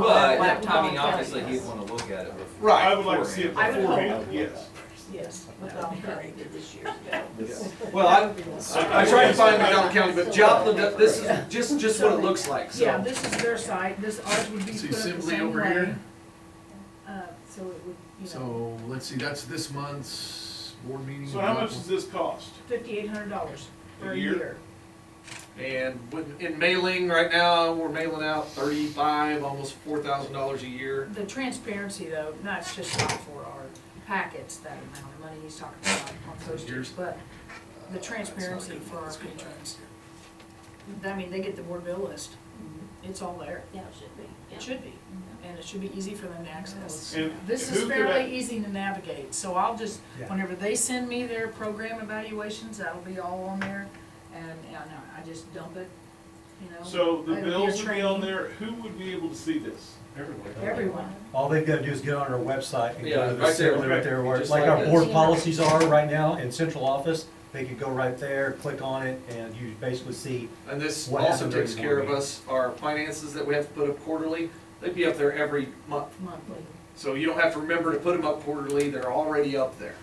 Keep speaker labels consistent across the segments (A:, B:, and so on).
A: But,
B: laptop
A: I mean,
B: on
A: obviously,
B: Saturday.
A: he'd wanna look at it. before-
C: Right.
D: I would like to see it
B: I would hope.
D: beforehand, yes.
B: Yes, but I'm very good this year.
C: Well, I, I tried to find McDonald County, but Joplin, that- this is just, just what it looks like,
B: Yeah,
C: so.
B: this is their side, this ours would be put
E: See,
B: up the same way.
E: Sibley over here?
B: Uh, so it would, you know,
E: So, let's see, that's this month's board meeting.
D: So how much does this cost?
B: fifty-eight hundred dollars
D: A
B: for a
D: year?
B: year.
E: And with- in mailing, right now, we're mailing out thirty-five, almost four thousand dollars a year.
B: The transparency though, that's just not for our packets, that amount of money he's talking about on posters,
E: Years.
B: but the transparency
E: Uh, that's not
B: for
E: good.
B: our
E: Let's go back.
B: patrons. I mean, they get the board bill list,
E: Mm-hmm.
B: it's all there,
F: Yeah, it should be, yeah.
B: it should be, and it should be easy for them to access.
D: And
B: This
D: who
B: is
D: could
B: fairly
D: I-
B: easy to navigate, so I'll just,
C: Yeah.
B: whenever they send me their program evaluations, that'll be all on there, and, and I just dump it, you know.
D: So the
B: It'll be a
D: bills would be on
B: training.
D: there, who would be able to see this?
B: Everyone,
G: All they've gotta do is get on our website and
C: Yeah,
G: go to the
C: right there,
G: center
C: right.
G: right there, where-
C: Just
G: like
C: like
G: our
C: this.
G: board policies are right now in central office. They could go right there, click on it, and you basically see,
E: And this
G: What
E: also
G: happened during
E: takes
G: the
E: care
G: board
E: of us, our finances that we have to put up quarterly, they'd be up there every month.
B: monthly.
E: So you don't have to remember to put them up quarterly, they're already up there.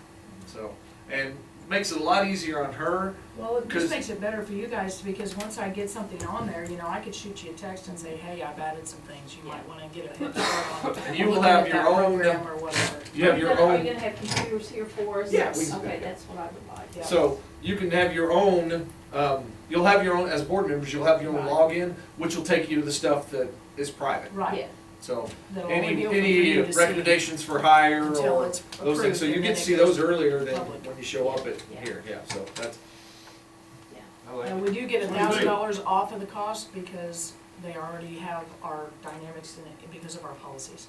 E: So, and makes it a lot easier on her.
B: Well, it just
E: 'Cause-
B: makes it better for you guys, because once I get something on there, you know, I could shoot you a text and say, hey, I've added some things, you might wanna get a head start on.
E: And you will
B: looking at
E: have your
B: that
E: own-
B: Program or whatever.
E: You have your
F: Are
E: own.
F: you gonna have computers here for us?
E: Yeah, we can do
F: Okay,
E: that.
F: that's what I would like.
B: Yeah.
E: So you can have your own, um, you'll have your own, as board members, you'll have your own login, which will take you to the stuff that is private.
B: Right.
F: Yeah.
E: So
B: That'll only be
E: any,
B: open for you
E: any
B: to see
E: recommendations for hire
B: Until
E: or
B: it's
E: those
B: approved
E: things, so you
B: and
E: get
B: then
E: to
B: it
E: see
B: goes
E: those earlier than
B: public.
E: when you show up at
F: Yeah.
E: here, yeah, so that's,
C: I
A: Oh,
C: like
B: And
C: it.
B: we do get a
D: What do you
B: thousand
D: think?
B: dollars off of the cost because they already have our dynamics in it because of our policies.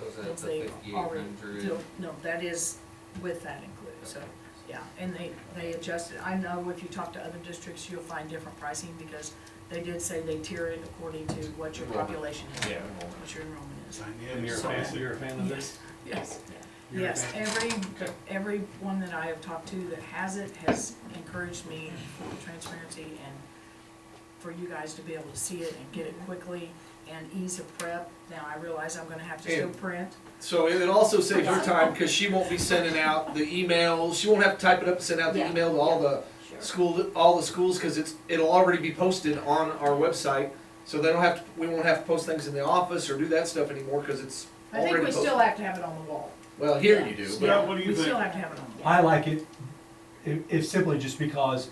A: So is that
B: Because
A: the
B: they
A: 5800?
B: already- No, that is with that included, so, yeah, and they, they adjusted, I know if you talk to other districts, you'll find different pricing because they did say they tier it according to what your
E: Enrollment.
B: population is,
E: yeah.
B: what your enrollment is.
D: And
C: You're a
D: so-
C: fan, you're a fan
G: "Hmm,
C: of this?
B: Yes,
C: You're a
B: yes,
C: fan?
B: every, every one that I have talked to that has it has encouraged me for transparency and for you guys to be able to see it and get it quickly and ease of prep. Now, I realize I'm gonna have to still
E: And-
B: print,
E: So it also saves her time, cause she won't be sending out the emails, she won't have to type it up and send out the
F: Yeah.
E: email to all the
F: Sure.
E: school, all the schools, cause it's, it'll already be posted on our website. So they don't have, to we won't have to post things in the office or do that stuff anymore, cause it's
B: I think
E: already
B: we
E: posted.
B: still have to have it on the wall.
E: Well, here you do, but
D: Scott, what do
B: We
D: you
B: still
D: think?
B: have to have it on the wall.
G: I like it, it, it's simply just because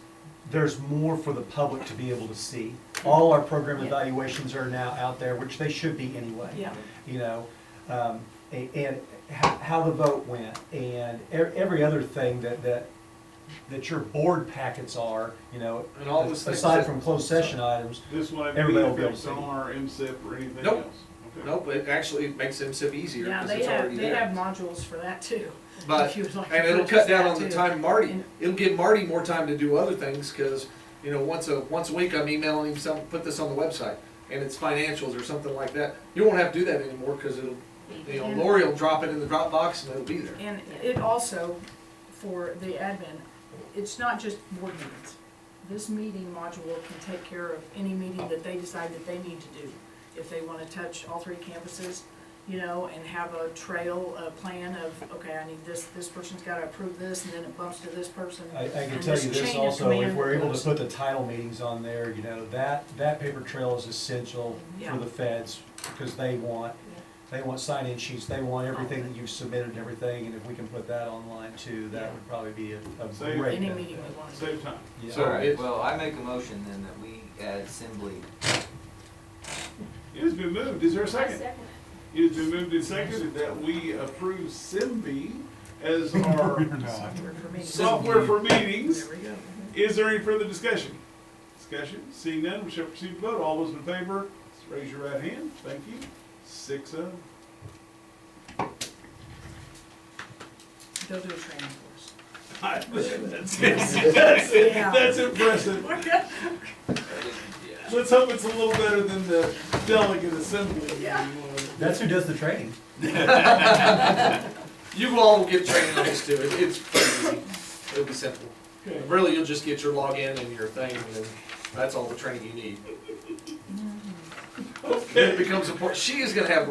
G: there's more for the public to be able to see. All our program
B: Yeah.
G: evaluations are now out there, which they should be anyway.
B: Yeah,
G: you know, um, a- and how, how the vote went, and e- every other thing that, that, that your board packets are, you know,
E: And all those things
G: aside
E: that-
G: from closed session items,
D: This one, I
G: Everybody will
D: believe,
G: be able to
D: it's
G: see.
D: on or MSIP or anything
E: Nope.
D: else? Okay.
E: nope, it actually makes MSIP easier,
B: yeah,
E: cause
B: they
E: it's already
B: have, they have
E: there.
B: modules for that too.
E: But,
B: if you would like to
E: and it'll
B: purchase
E: cut down
B: that
E: on the
B: too.
E: time Marty,
B: And-
E: it'll give Marty more time to do other things, cause, you know, once a, once a week I'm emailing him some, put this on the website. And it's financials or something like that, you won't have to do that anymore, cause it'll, you know,
B: And-
E: Lori will drop it in the Dropbox and it'll be there.
B: And it also, for the admin, it's not just board meetings. This meeting module can take care of any meeting that they decide that they need to do. If they wanna touch all three campuses, you know, and have a trail, a plan of, okay, I need this, this person's gotta approve this, and then it bumps to this person.
G: I, I can
B: And
G: tell
B: this
G: you
B: chain
G: this
B: of
G: also, if
B: command
G: we're able to
B: goes-
G: put the title meetings on there, you know, that, that paper trail is essential
B: Yeah.
G: for the feds, because they want, they want sign-in sheets, they want everything that you've submitted and everything, and if we can put that online too, that would probably be a, a
D: Save-
G: great
B: Any
G: benefit.
B: meeting we wanna do.
D: Save time.
G: Yeah.
E: So
A: Alright,
E: it's-
A: well, I make a motion then that we add Assembly.
D: It has been moved, is there a
F: I
D: second?
F: second
D: It has been moved and seconded that we approve SIMB as our
B: Software for meetings.
D: software for meetings.
B: There we go.
D: Is there any further discussion? Discussion, seeing none, we shall proceed to vote. All those in favor, raise your right hand. Thank you. Six oh.
B: They'll do a training course.
D: That's, it. that's, it.
B: Yeah.
D: that's impressive. Let's hope it's a little better than the delegate assembly.
B: Yeah.
G: That's who does the training.
E: You all will get training on this too. It- It's pretty easy. It'll be simple.
D: Okay.
E: Really, you'll just get your login and your thing, and then that's all the training you need. Then It
D: Okay.
E: becomes important. She is gonna have